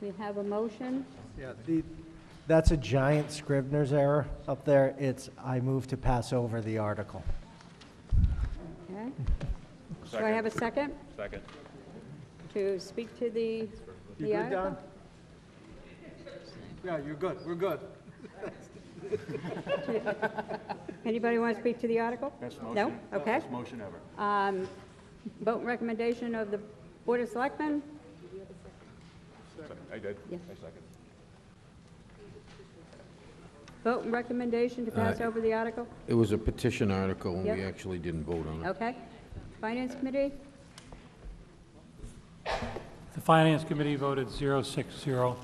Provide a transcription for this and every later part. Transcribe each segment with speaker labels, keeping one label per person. Speaker 1: We have a motion.
Speaker 2: Yeah, the,
Speaker 3: That's a giant Scrivener's error up there. It's, I move to pass over the article.
Speaker 1: Okay. Do I have a second
Speaker 4: Second.
Speaker 1: to speak to the,
Speaker 2: you
Speaker 1: the
Speaker 2: good, Don?
Speaker 1: article?
Speaker 2: Yeah, you're good, we're good.
Speaker 1: Anybody want to speak to the article? No? Okay.
Speaker 4: motion ever.
Speaker 1: Um, Vote and recommendation of the Board of Selectmen?
Speaker 4: I did.
Speaker 1: Yeah.
Speaker 4: I second.
Speaker 1: Vote and recommendation to pass
Speaker 5: Aye.
Speaker 1: over the article?
Speaker 5: It was a petition article, and we
Speaker 1: Yep.
Speaker 5: actually didn't vote on it.
Speaker 1: Okay. Finance Committee?
Speaker 6: The Finance Committee voted 060.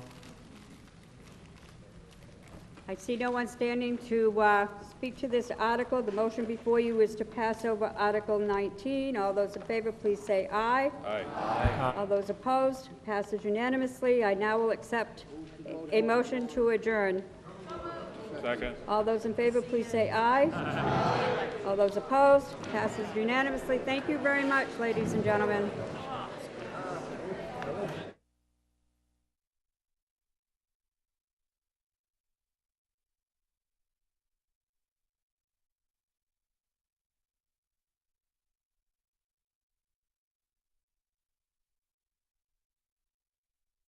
Speaker 1: I see no one standing to uh, speak to this article. The motion before you is to pass over Article 19. All those in favor, please say aye.
Speaker 4: Aye.
Speaker 1: All those opposed, passes unanimously. I now will accept a motion to adjourn.
Speaker 4: Second.
Speaker 1: All those in favor, please say aye. All those opposed, passes unanimously. Thank you very much, ladies and gentlemen.